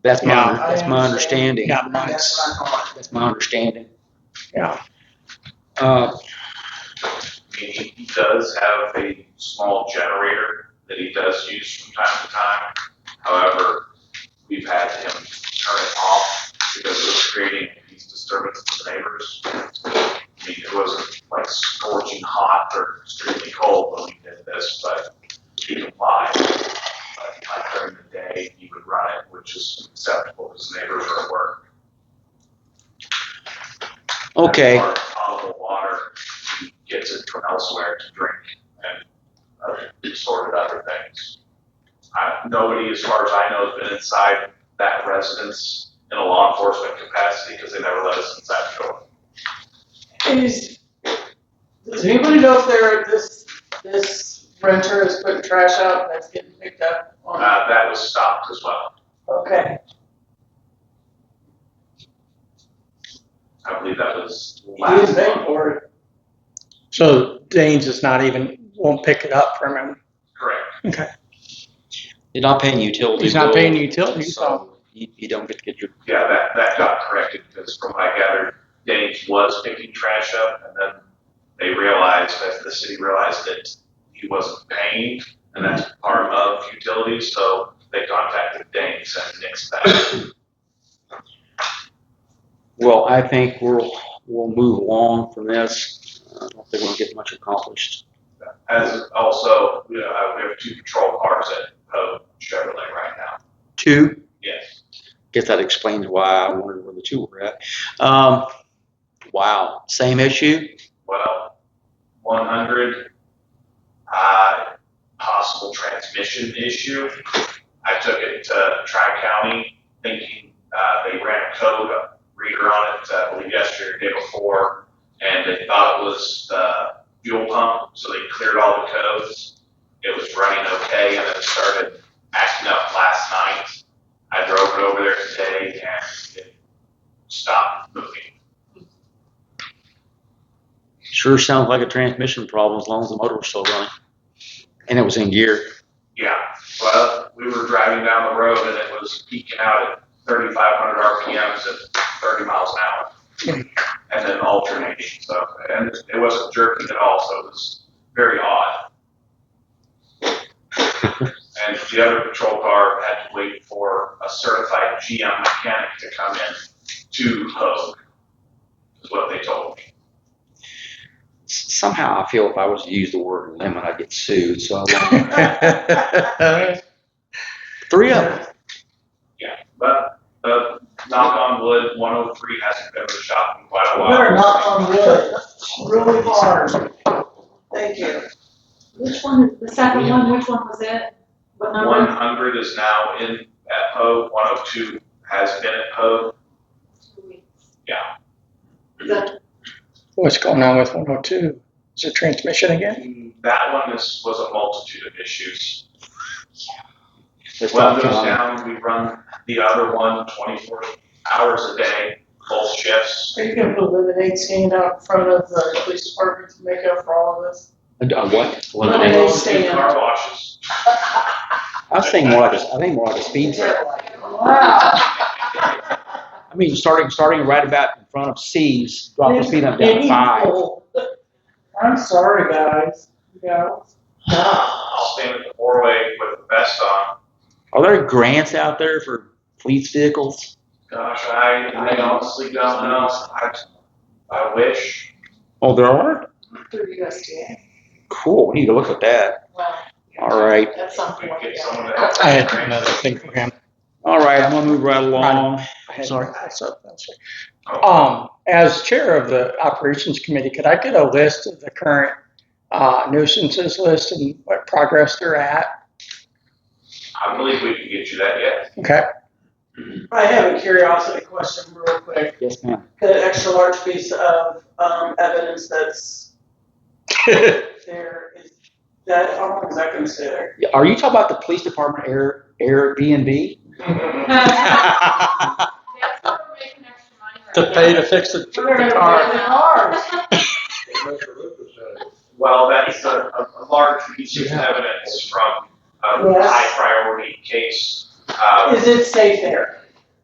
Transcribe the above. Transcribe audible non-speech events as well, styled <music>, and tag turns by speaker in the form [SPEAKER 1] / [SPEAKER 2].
[SPEAKER 1] That's my,
[SPEAKER 2] Yeah.
[SPEAKER 1] that's my understanding.
[SPEAKER 2] Yeah,
[SPEAKER 1] That's
[SPEAKER 2] mine's,
[SPEAKER 1] that's my understanding.
[SPEAKER 2] yeah,
[SPEAKER 1] Uh,
[SPEAKER 3] I mean, he, he does have a small generator that he does use from time to time. However, we've had him turn it off because it was creating these disturbances to the neighbors. I mean, it wasn't like scorching hot or extremely cold when we did this, but he complied. But like during the day, he would run it, which is acceptable because neighbors are at work.
[SPEAKER 1] okay.
[SPEAKER 3] Our potable water, he gets it from elsewhere to drink and other sort of other things. I, nobody, as far as I know, has been inside that residence in a law enforcement capacity because they never let us inside the door.
[SPEAKER 4] Is, does anybody know if there, this, this renter is putting trash out and that's getting picked up on?
[SPEAKER 3] Uh, that was stopped as well.
[SPEAKER 4] Okay,
[SPEAKER 3] I believe that was
[SPEAKER 4] he was
[SPEAKER 3] last
[SPEAKER 4] paying
[SPEAKER 3] month.
[SPEAKER 4] for <laughs> it.
[SPEAKER 2] so Danes is not even, won't pick it up from him.
[SPEAKER 3] Correct.
[SPEAKER 1] You're not paying utility.
[SPEAKER 2] He's not
[SPEAKER 1] bill,
[SPEAKER 2] paying utilities, so
[SPEAKER 1] You, you don't get to get your,
[SPEAKER 3] Yeah, that, that got corrected because from what I gathered, Danes was picking trash up and then they realized that the city realized that he wasn't paying and that's part of utilities, so they contacted Danes and nixed that.
[SPEAKER 1] well, I think we'll, we'll move along from this. Uh, I don't think we'll get much accomplished.
[SPEAKER 3] As also, you know, I- we have two patrol cars at Poe Chevrolet right now.
[SPEAKER 1] Two,
[SPEAKER 3] Yes.
[SPEAKER 1] guess that explains why I wondered where the two were at. Um, wow, same issue?
[SPEAKER 3] Well, one hundred, uh, possible transmission issue. I took it to Tri-County thinking, uh, they ran a code reader on it, uh, I believe yesterday or day before, and they thought it was the fuel pump, so they cleared all the codes. It was running okay, and then it started acting up last night. I drove it over there today and it stopped moving.
[SPEAKER 1] Sure sounds like a transmission problem as long as the motor was still running. And it was in gear.
[SPEAKER 3] Yeah, well, we were driving down the road and it was peaking out at thirty-five hundred RPMs at thirty miles an hour. And then alternating, so, and it wasn't jerking at all, so it was very odd. And the other patrol car had to wait for a certified GM mechanic to come in to Hogue, is what they told me.
[SPEAKER 1] S- Somehow I feel if I was to use the word lemon, I'd get sued, so I won't.
[SPEAKER 2] <laughs>
[SPEAKER 1] Three of them.
[SPEAKER 3] But, uh, knock on wood, one oh three hasn't been to the shop in quite a while.
[SPEAKER 4] Better knock on wood, really hard. Thank you.
[SPEAKER 5] Which one, the second one, which one was it? What
[SPEAKER 3] One
[SPEAKER 5] number?
[SPEAKER 3] hundred is now in at Poe, one oh two has been at Poe. Yeah.
[SPEAKER 5] Is that-
[SPEAKER 2] what's going on with one oh two? Is it transmission again?
[SPEAKER 3] That one is, was a multitude of issues.
[SPEAKER 1] Let's
[SPEAKER 3] One
[SPEAKER 1] talk
[SPEAKER 3] goes
[SPEAKER 1] John.
[SPEAKER 3] down, we run the other one 24 hours a day, both shifts.
[SPEAKER 4] Are you gonna put lemonade stand out in front of the police department to make up for all of this?
[SPEAKER 1] A- a what?
[SPEAKER 4] Lemonade.
[SPEAKER 1] Lemonade.
[SPEAKER 4] stand.
[SPEAKER 3] Car washes.
[SPEAKER 1] I was thinking more like a, I think more like a speed trap.
[SPEAKER 4] Wow.
[SPEAKER 1] I mean, starting, starting right about in front of C's, drop the speed up down to five.
[SPEAKER 4] I'm sorry, guys, you know,
[SPEAKER 3] I'll stand at the four-way with the vest on.
[SPEAKER 1] Are there grants out there for police vehicles?
[SPEAKER 3] Gosh, I, I honestly don't know. I, I wish.
[SPEAKER 1] Oh, there are?
[SPEAKER 4] through
[SPEAKER 5] <laughs>
[SPEAKER 4] USDA.
[SPEAKER 1] Cool, we need to look at that.
[SPEAKER 4] Wow,
[SPEAKER 1] All right,
[SPEAKER 4] that's something.
[SPEAKER 3] We'd get someone to help.
[SPEAKER 2] I had another thing for him.
[SPEAKER 1] all right, I'm gonna move right along.
[SPEAKER 2] I had-
[SPEAKER 1] Sorry.
[SPEAKER 2] I saw- I'm sorry. Um, as chair of the operations committee, could I get a list of the current uh, nuisances list and what progress they're at?
[SPEAKER 3] I believe we can get you that yet.
[SPEAKER 2] Okay,
[SPEAKER 4] I have a curiosity question real quick.
[SPEAKER 1] Yes, ma'am.
[SPEAKER 4] The extra large piece of, um, evidence that's there is, that, how long is that gonna stay there?
[SPEAKER 1] Yeah, <laughs> Are you talking about the police department Air, <laughs> Airbnb?
[SPEAKER 5] That's where we're making extra money right
[SPEAKER 2] to
[SPEAKER 5] now.
[SPEAKER 2] pay to fix the
[SPEAKER 4] We're gonna
[SPEAKER 2] the car.
[SPEAKER 4] put it in ours.
[SPEAKER 3] Well, that's a, a a large piece of evidence from a
[SPEAKER 4] Yes.
[SPEAKER 3] high priority case. Um,
[SPEAKER 4] Is it safe there?